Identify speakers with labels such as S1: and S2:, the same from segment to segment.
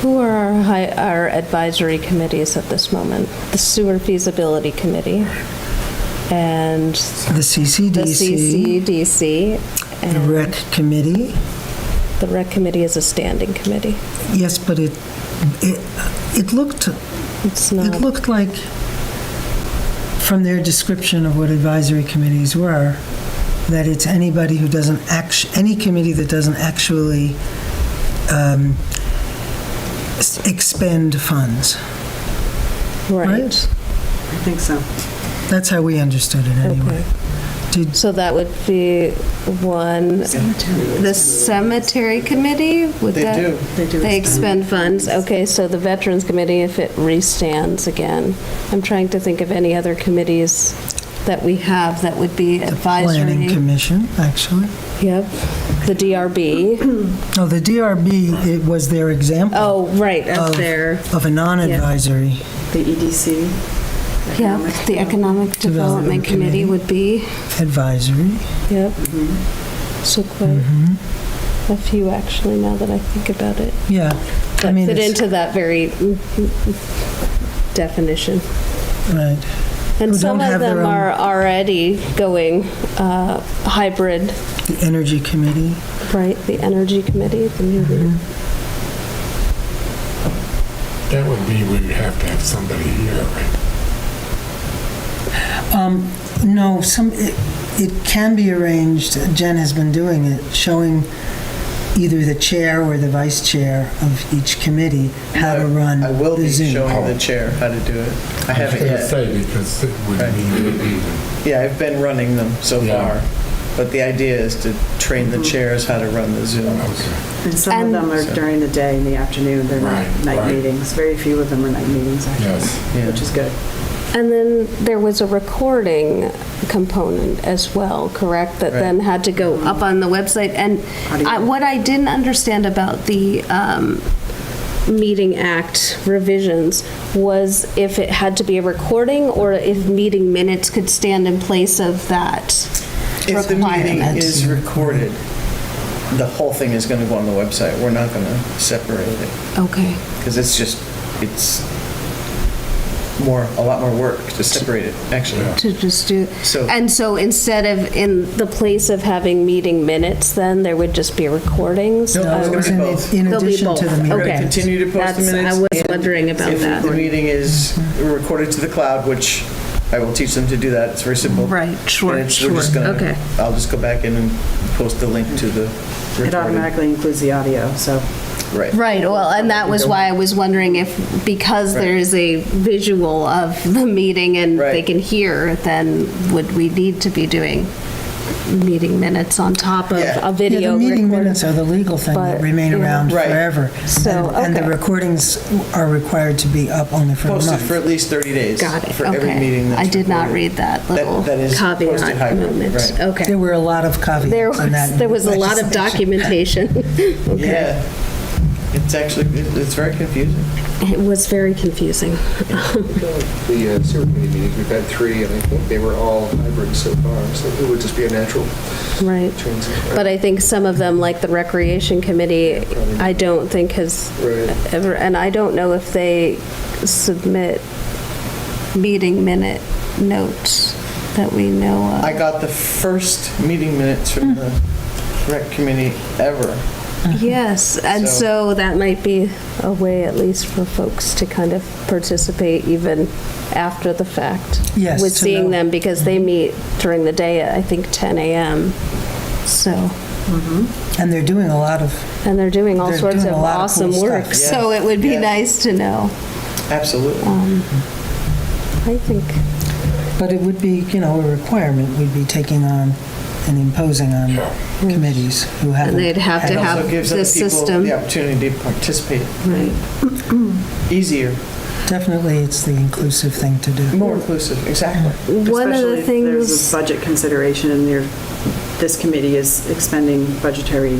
S1: Who are our hi- our advisory committees at this moment? The Sewer Feasibility Committee and
S2: The
S1: the
S2: CCDC,
S1: CCDC.
S2: the
S1: And
S2: rec committee.
S1: the Rec Committee is a standing committee.
S2: Yes, but it, it, it looked,
S1: It's
S2: it
S1: not,
S2: looked like, from their description of what advisory committees were, that it's anybody who doesn't act, any committee that doesn't actually um, s- expend funds,
S1: right.
S2: right?
S3: I think so.
S2: That's how we understood it anyway.
S1: Okay.
S2: Did,
S1: So that would be one. The Cemetery Committee? would
S3: They
S1: that-
S3: do. They do
S1: They
S3: expend
S1: expend funds. Okay, so the Veterans Committee, if it restands again. I'm trying to think of any other committees that we have that would be
S2: the planning
S1: advisory.
S2: commission, actually.
S1: Yep, the DRB.
S2: No, the DRB, it was their example.
S1: Oh, right, up
S2: Of-
S1: there.
S2: Of a non-advisory.
S3: The
S4: E
S3: EDC.
S1: Yeah,
S3: Economic
S1: the Economic Development
S2: Development
S1: Committee
S2: Committee.
S1: would be,
S2: advisory.
S1: yep.
S2: Mm-hmm.
S1: So quite a few, actually, now that I think about it.
S2: Yeah, Mm-hmm. I
S1: That
S2: mean,
S1: fit
S2: it's,
S1: into that very mm, mm, mm, definition.
S2: right,
S1: And
S2: Who
S1: some
S2: don't
S1: of
S2: have their
S1: them
S2: own-
S1: are already going uh, hybrid,
S2: the energy committee.
S1: right? The Energy Committee, the
S2: Mm-hmm.
S1: new,
S5: That would be, we would have to have somebody here, right?
S2: Um, no, some, it, it can be arranged, Jen has been doing it, showing either the chair or the vice chair of each committee how to run
S3: I will
S2: the
S3: be
S2: Zoom.
S3: showing the chair how to do it. I
S5: was
S3: haven't
S5: going to
S3: yet.
S5: say, because it would
S3: Right.
S5: mean,
S3: Yeah, I've been running them so
S5: Yeah.
S3: far. But the idea is to train the chairs how to run the Zoom.
S5: okay,
S4: And some
S1: And-
S4: of them are during the day, in the afternoon, they're not
S5: Right,
S4: night
S5: right.
S4: meetings. Very few of them are night meetings,
S5: yes.
S4: actually,
S3: Yeah.
S4: which is good.
S1: and then there was a recording component as well, correct? That
S3: Right.
S1: then had to go up on the website. And I-
S4: Audio.
S1: what I didn't understand about the um, Meeting Act revisions was if it had to be a recording or if meeting minutes could stand in place of that
S3: If the meeting
S1: requirement.
S3: is recorded, the whole thing is going to go on the website. We're not going to separate it
S1: Okay.
S3: because it's just, it's more, a lot more work to separate it, actually.
S1: To just do,
S3: So-
S1: and so instead of, in the place of having meeting minutes, then there would just be recordings?
S3: No,
S1: of-
S3: it's gonna
S2: was in-
S3: both.
S2: In
S1: They'll be
S2: addition
S1: both.
S2: to the meeting.
S3: We're going
S1: Okay.
S3: to continue to post the
S1: That's- I
S3: minutes.
S1: was
S3: and
S1: wondering about that.
S3: If the meeting is recorded to the cloud, which I will teach them to do that, it's very simple.
S1: Right, sure,
S3: And it's-
S1: sure,
S3: we're just gonna-
S1: okay.
S3: I'll just go back in and post the link to the
S4: It
S3: recording.
S4: automatically includes the audio, so
S3: Right.
S1: Right, well, and that was why I was wondering if, because there is a visual of the meeting and they
S3: Right.
S1: can hear, then would we need to be doing meeting minutes on top of
S3: Yeah.
S1: a
S2: Yeah,
S1: video
S2: the meeting
S1: recording?
S2: minutes are the legal thing that
S1: but,
S2: remain
S1: yeah.
S2: around
S3: Right.
S2: forever.
S1: So,
S2: And- And
S1: okay.
S2: the recordings are required to be up only for a month.
S3: Posted for at least 30 days.
S1: Got it,
S3: For every
S1: okay.
S3: meeting that's
S1: I did not
S3: recorded.
S1: read that little
S3: that is posted
S1: caveat
S3: hybrid,
S1: moment,
S3: right.
S1: okay.
S2: There were a lot of caveats
S1: There
S2: in
S1: was,
S2: that
S1: there was a lot of
S2: legislation.
S1: documentation. Okay.
S3: Yeah. It's actually, it- it's very confusing.
S1: It was very confusing.
S6: The uh, sewer committee meetings, we've had three, and I think they were all hybrid so far, so it would just be a natural
S1: Right.
S6: transition.
S1: But I think some of them, like the Recreation Committee, I don't think has
S6: Right.
S1: ever, and I don't know if they submit meeting minute notes that we know of.
S3: I got the first meeting minutes from the rec committee ever.
S1: Yes, and
S3: So-
S1: so that might be a way, at least for folks to kind of participate even after the fact.
S2: Yes,
S1: With
S2: to
S1: seeing
S2: know.
S1: them, because they meet during the day at, I think, 10 a.m. So,
S2: And they're doing a lot of
S1: and they're doing all
S2: They're
S1: sorts
S2: doing
S1: of
S2: a lot of cool
S1: awesome
S2: stuff.
S1: work,
S3: Yeah,
S1: so it would be
S3: yeah.
S1: nice to know.
S3: Absolutely.
S1: I think,
S2: But it would be, you know, a requirement we'd be taking on and imposing on committees who haven't.
S1: and they'd have to
S2: had-
S1: have
S3: Also gives other
S1: the
S3: people
S1: system.
S3: the opportunity to participate
S1: Right.
S3: easier,
S2: Definitely, it's the inclusive thing to do.
S3: more inclusive, exactly.
S1: One of the
S4: especially if there's
S1: things,
S4: a budget consideration and there, this committee is expending budgetary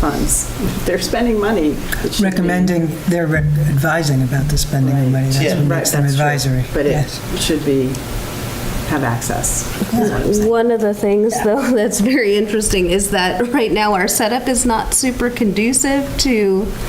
S4: funds. They're spending money. it should be-
S2: Recommending, they're rec- advising about the spending of money, that's
S3: Yeah.
S2: what
S4: Right,
S2: makes them
S4: that's true.
S2: advisory.
S4: But it
S2: Yes.
S4: should be, have access. is what I'm saying.
S1: one of the things, though, that's very interesting is that right now our setup is not super conducive to